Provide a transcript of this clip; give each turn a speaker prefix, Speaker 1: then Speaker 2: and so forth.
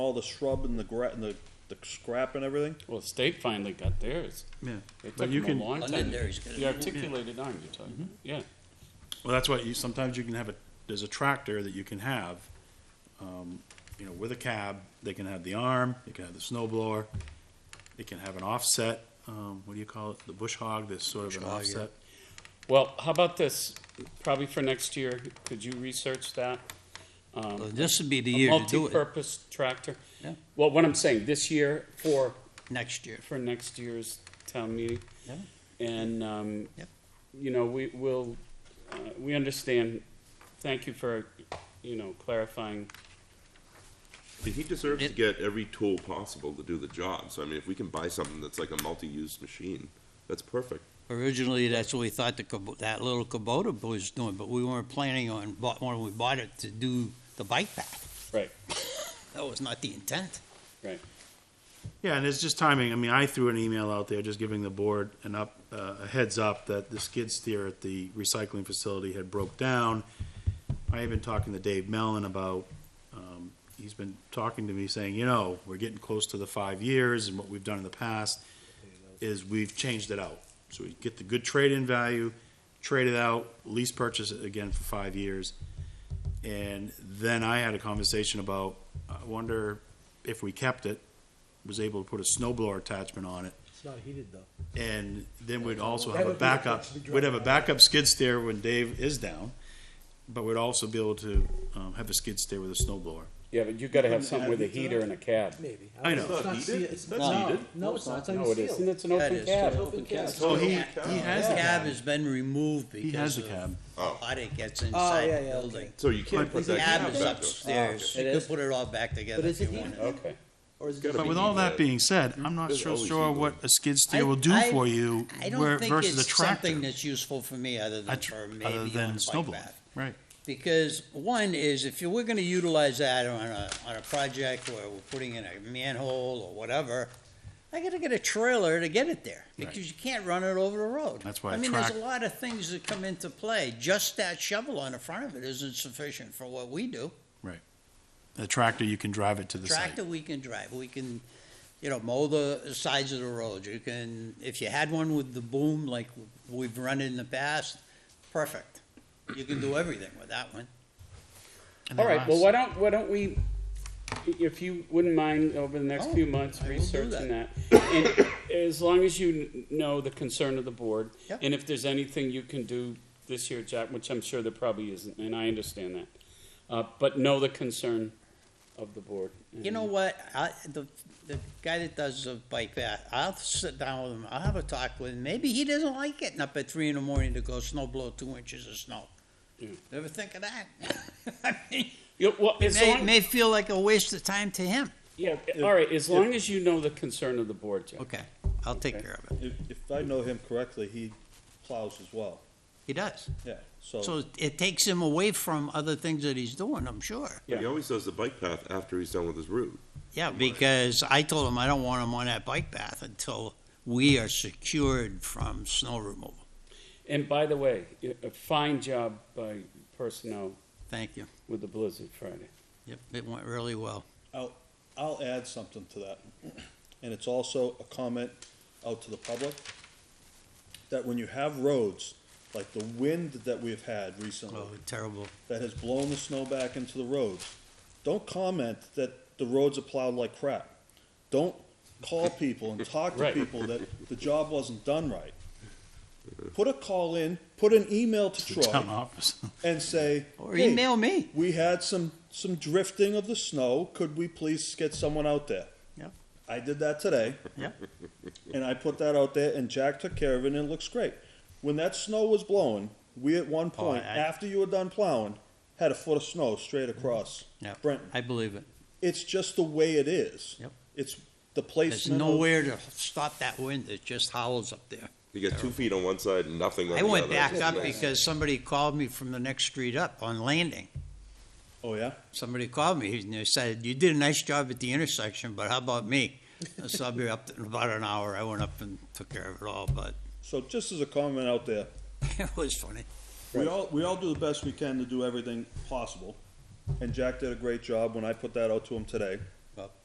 Speaker 1: all the shrub and the gra- and the, the scrap and everything?
Speaker 2: Well, the state finally got theirs.
Speaker 3: Yeah,
Speaker 2: It
Speaker 3: But
Speaker 2: took
Speaker 3: you
Speaker 2: them
Speaker 3: can- Mm-hmm.
Speaker 2: a long time.
Speaker 4: Londonderry's got it.
Speaker 2: The articulated arm you're talking, about. yeah.
Speaker 3: well, that's why you, sometimes you can have a, there's a tractor that you can have, um, you know, with a cab, they can have the arm, they can have the snow blower, they can have an offset, um, what do you call it, the bush hog, this sort of an
Speaker 4: Bush hog, yeah.
Speaker 3: offset.
Speaker 2: Well, how about this, probably for next year, could you research that?
Speaker 4: Well,
Speaker 2: Um,
Speaker 4: This would be the
Speaker 2: A
Speaker 4: year to do it,
Speaker 2: multi-purpose tractor?
Speaker 4: Yeah.
Speaker 2: Well, what I'm saying, this year for,
Speaker 4: next year.
Speaker 2: for next year's town meeting.
Speaker 4: Yeah.
Speaker 2: And, um,
Speaker 4: Yep.
Speaker 2: you know, we will, uh, we understand, thank you for, you know, clarifying.
Speaker 5: And he deserves to
Speaker 4: It-
Speaker 5: get every tool possible to do the job. So I mean, if we can buy something that's like a multi-use machine, that's perfect.
Speaker 4: Originally, that's what we thought the, Kubo- that little Kubota was doing, but we weren't planning on, bought- when we bought it, to do the bike path.
Speaker 2: Right.
Speaker 4: That was not the intent.
Speaker 2: Right.
Speaker 3: Yeah, and it's just timing. I mean, I threw an email out there just giving the board an up, uh, a heads up that the skid steer at the recycling facility had broke down. I have been talking to Dave Mellon about, um, he's been talking to me saying, you know, we're getting close to the five years and what we've done in the past is we've changed it out. So we get the good trade-in value, trade it out, lease purchase it again for five years. And then I had a conversation about, I wonder if we kept it, was able to put a snowblower attachment on it.
Speaker 6: It's not heated though.
Speaker 3: And then we'd also
Speaker 6: That
Speaker 3: have a
Speaker 6: would be a
Speaker 3: backup,
Speaker 6: fixed drive.
Speaker 3: we'd have a backup skid steer when Dave is down, but we'd also be able to, um, have a skid steer with a snowblower.
Speaker 2: Yeah, but you gotta have something with a heater and a cab.
Speaker 6: Maybe.
Speaker 3: I know.
Speaker 6: It's not
Speaker 5: Heated?
Speaker 6: sealed. It's
Speaker 5: That's
Speaker 6: no,
Speaker 5: heated.
Speaker 6: No, it's not. It's
Speaker 2: No, it
Speaker 6: unsealed.
Speaker 2: isn't, it's an
Speaker 4: Yeah, it
Speaker 2: open
Speaker 4: is.
Speaker 2: cab.
Speaker 6: Open cab.
Speaker 3: Oh, he, he has
Speaker 4: The
Speaker 3: the
Speaker 4: cab
Speaker 3: cab.
Speaker 4: has been removed
Speaker 3: He has
Speaker 4: because
Speaker 3: the
Speaker 4: of
Speaker 3: cab.
Speaker 5: Oh.
Speaker 4: how it gets inside
Speaker 6: yeah,
Speaker 4: the
Speaker 6: yeah, okay.
Speaker 4: building.
Speaker 5: So you can't
Speaker 3: But
Speaker 5: put
Speaker 4: The
Speaker 5: that
Speaker 4: cab
Speaker 5: cab
Speaker 4: is
Speaker 5: back to.
Speaker 3: Oh,
Speaker 4: upstairs.
Speaker 6: It
Speaker 4: You could
Speaker 6: is?
Speaker 4: put it all back together
Speaker 6: But
Speaker 4: if
Speaker 6: is
Speaker 4: you
Speaker 6: it
Speaker 4: want.
Speaker 6: heated?
Speaker 2: Okay.
Speaker 6: Or is it
Speaker 5: Gotta
Speaker 6: just-
Speaker 3: But
Speaker 5: be
Speaker 3: with all that
Speaker 5: heated.
Speaker 3: being said, I'm not
Speaker 5: There's
Speaker 3: so
Speaker 5: always
Speaker 3: sure
Speaker 5: heat
Speaker 3: what a skid steer will do
Speaker 4: I- I-
Speaker 3: for you
Speaker 4: I
Speaker 3: where-
Speaker 4: don't think
Speaker 3: versus a
Speaker 4: it's
Speaker 3: tractor.
Speaker 4: something that's useful for me other
Speaker 3: a
Speaker 4: than
Speaker 3: tr-
Speaker 4: for
Speaker 3: Other
Speaker 4: maybe on
Speaker 3: than
Speaker 4: a
Speaker 3: snow
Speaker 4: bike
Speaker 3: blowing.
Speaker 4: path.
Speaker 3: right.
Speaker 4: Because one is if you we're gonna utilize that on a, on a project where we're putting in a manhole or whatever, I gotta get a trailer to get it there, because you can't run it over the road.
Speaker 3: That's why
Speaker 4: I
Speaker 3: a
Speaker 4: mean, there's
Speaker 3: track-
Speaker 4: a lot of things that come into play. Just that shovel on the front of it isn't sufficient for what we do.
Speaker 3: A tractor, you can drive it to the site.
Speaker 4: Tractor, we can drive, we can, you know, mow the sides of the road, you can, if you had one with the boom like we've run in the past, perfect. You can do everything with that one.
Speaker 3: And
Speaker 2: All
Speaker 3: then
Speaker 2: right, well,
Speaker 3: last-
Speaker 2: why don't, why don't we, if you wouldn't mind, over the next
Speaker 4: Oh,
Speaker 2: few months,
Speaker 4: I will do
Speaker 2: researching that. And as long as you kn- know the concern of the board,
Speaker 4: Yeah.
Speaker 2: and if there's anything you can do this year, Jack, which I'm sure there probably isn't, and I understand that. Uh, but know the concern of the board.
Speaker 4: You know what, I, the, the guy that does the bike path, I'll sit down with him, I'll have a talk with him, maybe he doesn't like getting up at three in the morning to go snow blow two inches of snow.
Speaker 2: Yeah.
Speaker 4: Never think of that. I mean,
Speaker 2: You- well,
Speaker 4: It
Speaker 2: as
Speaker 4: may,
Speaker 2: long-
Speaker 4: may feel like a waste of time to him.
Speaker 2: yeah, all right, as long as you know the concern of the board, Jack.
Speaker 4: Okay, I'll take care of it,
Speaker 1: If, if I know him correctly, he plows as well,
Speaker 4: he does.
Speaker 1: yeah, so,
Speaker 4: So it takes him away from other things that he's doing, I'm sure.
Speaker 5: He always does the bike path after he's done with his route.
Speaker 4: Yeah, because I told him I don't want him on that bike path until we are secured from snow removal.
Speaker 2: And by the way, y- a fine job by personnel
Speaker 4: Thank you.
Speaker 2: with the Blizzard Friday.
Speaker 4: Yep, it went really well.
Speaker 1: I'll, I'll add something to that. And it's also a comment out to the public, that when you have roads, like the wind that we've had recently,
Speaker 4: Oh, terrible.
Speaker 1: that has blown the snow back into the roads. Don't comment that the roads are plowed like crap. Don't call people and talk to
Speaker 2: Right.
Speaker 1: people that the job wasn't done right. Put a call in, put an email to
Speaker 3: Town
Speaker 1: Troy
Speaker 3: office.
Speaker 1: and say,
Speaker 4: Or
Speaker 1: "Hey,
Speaker 4: email me.
Speaker 1: we had some, some drifting of the snow. Could we please get someone out there?
Speaker 4: Yeah.
Speaker 1: I did that today.
Speaker 4: Yeah.
Speaker 1: And I put that out there and Jack took care of it and it looks great. When that snow was blowing, we at one
Speaker 4: Oh, I- Mm-hmm.
Speaker 1: point, after you were done plowing, had a foot of snow straight across
Speaker 4: Yeah,
Speaker 1: Brenton.
Speaker 4: I believe it.
Speaker 1: It's just the way it is.
Speaker 4: Yep.
Speaker 1: It's the
Speaker 4: There's
Speaker 1: placement. of-
Speaker 4: nowhere to stop that wind. It just howls up there.
Speaker 5: You get two feet on one side and nothing on the
Speaker 4: I
Speaker 5: other.
Speaker 4: went back
Speaker 5: It's
Speaker 4: up
Speaker 5: amazing.
Speaker 4: because somebody called me from the next street up on landing.
Speaker 1: Oh, yeah?
Speaker 4: somebody called me and they said, "You did a nice job at the intersection, but how about me?" so I'll be up in about an hour. I went up and took care of it all, but
Speaker 1: So just as a comment out there,
Speaker 4: it was funny.
Speaker 1: we all, we all do the best we can to do everything possible. And Jack did a great job when I put that out to him today.
Speaker 4: Well,